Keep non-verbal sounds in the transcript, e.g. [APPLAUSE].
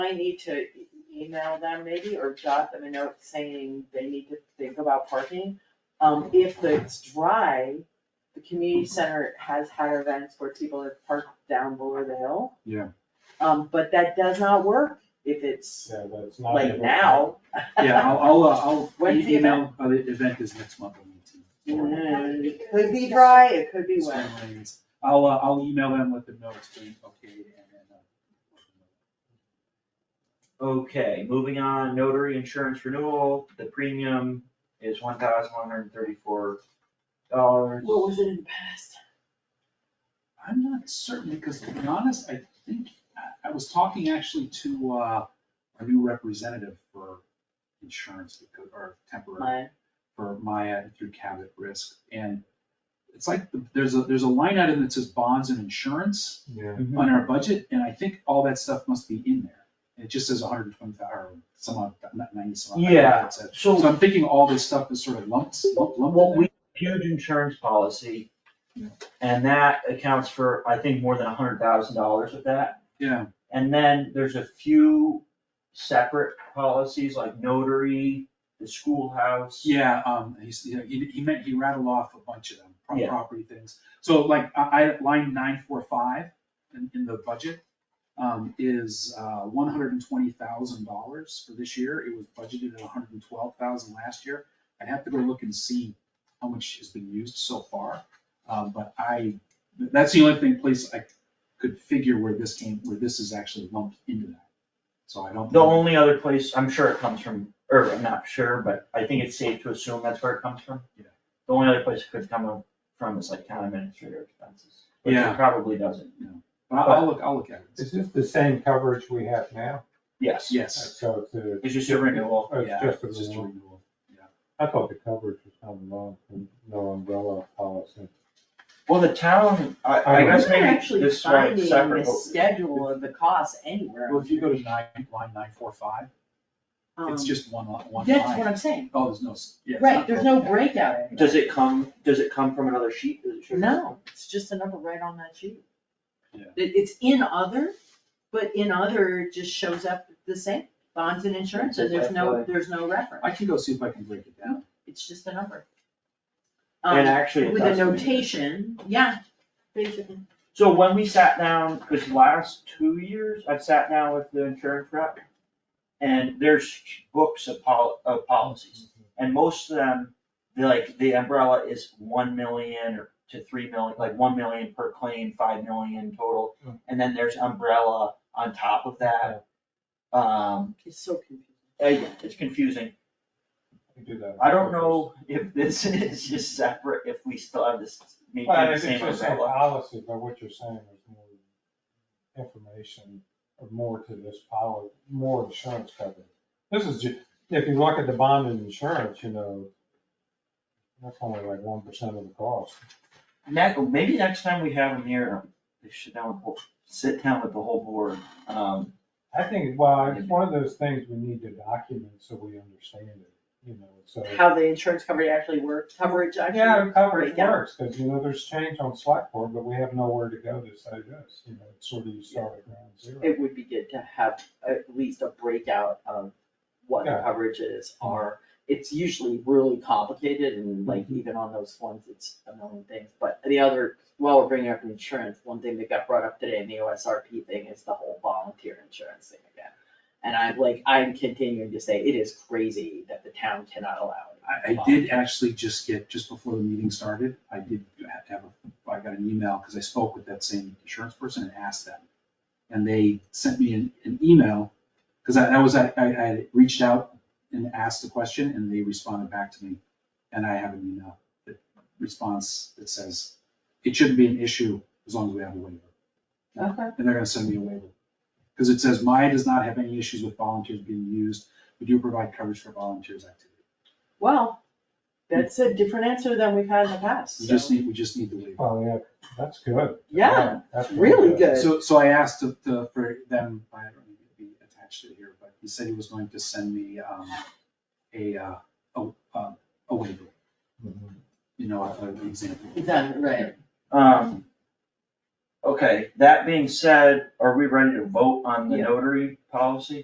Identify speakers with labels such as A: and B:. A: I need to e- email them maybe, or jot them a note saying they need to think about parking? Um, if it's dry, the community center has had events where people have parked down below the hill.
B: Yeah.
A: Um, but that does not work if it's
C: Yeah, but it's not.
A: like
C: able-
A: now.
B: Yeah,
A: [LAUGHS]
B: I'll, I'll, uh, I'll
A: When's the
B: email, uh, the event is next month. on the 18th.
A: Mm, It could be dry, it could be
B: It's
A: wet.
B: one of these. I'll, uh, I'll email them with the notes, being okay, and then. uh,
D: Okay, moving on, notary insurance renewal, the premium is one thousand one hundred and thirty-four dollars.
A: What was it in the past?
B: I'm not certain, because to be honest, I think, I, I was talking actually to, uh, our new representative for insurance, because, or temporary.
A: Mine.
B: for Maya through Cabot Risk. And it's like, the- there's a, there's a line item that says bonds and insurance
C: Yeah,
B: on our budget, and I think all that stuff must be in there. And It just says hundred and twenty, or some odd, not ninety, some odd.
D: Yeah,
B: So
D: so-
B: I'm thinking all this stuff is sort of lumped, lumped in
D: Well,
B: there.
D: we, huge insurance policy,
B: Yeah.
D: and that accounts for, I think, more than a hundred thousand dollars of that.
B: Yeah,
D: And then there's a few separate policies like notary, the schoolhouse.
B: yeah, um, he's, you know, he, he meant, he rattled off a bunch of them, pro-
D: Yeah.
B: property things. So like, I, I, line nine four five in, in the budget, um, is, uh, one hundred and twenty thousand dollars for this year. It was budgeted at $112,000 last year. I'd have to go look and see how much has been used so far. Um, but I, that's the only thing, place I could figure where this came, where this is actually lumped into that. So I don't.
D: The only other place, I'm sure it comes from, or I'm not sure, but I think it's safe to assume that's where it comes from.
B: Yeah.
D: The only other place it could come from is like town administrator expenses, which
B: Yeah.
D: it probably doesn't.
B: But I'll, I'll look, I'll look at it.
C: is this the same coverage we have now?
D: Yes.
B: Yes.
C: So it's a.
D: It's just a renewal.
C: Oh,
B: Yeah,
C: It's just a
B: it's just a
C: renewal.
B: renewal.
C: I thought the coverage was coming along from no umbrella policy.
D: Well, the town, I, I guess
A: We're
D: maybe
A: actually
D: this one
A: finding
D: is
A: the
D: separate.
A: schedule of the cost anywhere.
B: Well, if you go to nine, line nine four five, it's
A: Um,
B: just one, li- one
A: That's what
B: line.
A: I'm saying,
B: Oh, there's no, s- yeah. it's
A: right,
B: not
A: there's no
B: broken down.
A: breakout in
D: Does it come, does it come from another sheet? Does it show-
A: No, it's just a number right on that sheet.
B: Yeah.
A: It, it's in other, but in other just shows up the same, bonds and insurance, and there's no, there's no reference,
B: I can go see if I can break it down.
A: it's just a number. Um,
D: And actually, it
A: With a
D: does.
A: notation, yeah, basically.
D: So when we sat down, because last two years, I've sat down with the insurance rep, and there's books of pol- of policies, and most of them, they're like, the umbrella is one million or to three million, like one million per claim, five million total,
C: Mm.
D: and then there's umbrella on top of that. Um,
A: It's so confusing.
D: I- it's confusing,
C: We do that on
D: I
C: purpose.
D: don't know if this [LAUGHS] is just separate, if we still have this, maybe
C: Well,
D: the
C: it's
D: same
C: just a
D: umbrella.
C: policy, but what you're saying is more information, or more to this policy, more insurance coverage. This is, ju- if you look at the bond and insurance, you know, that's only like one percent of the cost.
D: Ne- maybe next time we have them here, um, they should down, with- sit down with the whole board, um,
C: I think, well, it's one of those things we need to document so we understand it, you know, so.
A: How the insurance coverage actually works, coverage actually.
C: Yeah, coverage
A: breakdown.
C: works, because you know, there's change on Slackboard, but we have nowhere to go to say this, you know, it's sort of you start at ground zero.
A: It would be good to have at least a breakout of what the
C: Yeah.
A: coverages are. It's usually really complicated and like even on those ones, it's a million things. But the other, while we're bringing up insurance, one thing that got brought up today in the OSRP thing is the whole volunteer insurance thing again. And I'm like, I'm continuing to say it is crazy that the town cannot allow.
B: I, I did actually just get, just before the meeting started, I did have to have, a- I got an email, because I spoke with that same insurance person and asked them. And they sent me an, an email, because I, that was, I, I I had reached out and asked the question, and they responded back to me. And I have an email, that response that says, it shouldn't be an issue as long as we have a waiver.
A: Okay.
B: And they're gonna send me a waiver. Because it says Maya does not have any issues with volunteers being used. We do provide coverage for volunteers activity.
A: Well, that's a different answer than we've had in the past,
B: We
A: so.
B: just need, we just need the waiver.
C: Oh, yeah, that's good.
A: Yeah,
C: That's
A: really good.
B: So, so I asked to, to, for them, I don't need to be attached to it here, but he said he was going to send me, um, a, uh, a, um, a waiver,
C: Mhm.
B: you know, an example.
A: Exactly, right.
D: um. Okay, that being said, are we ready to vote on the notary policy?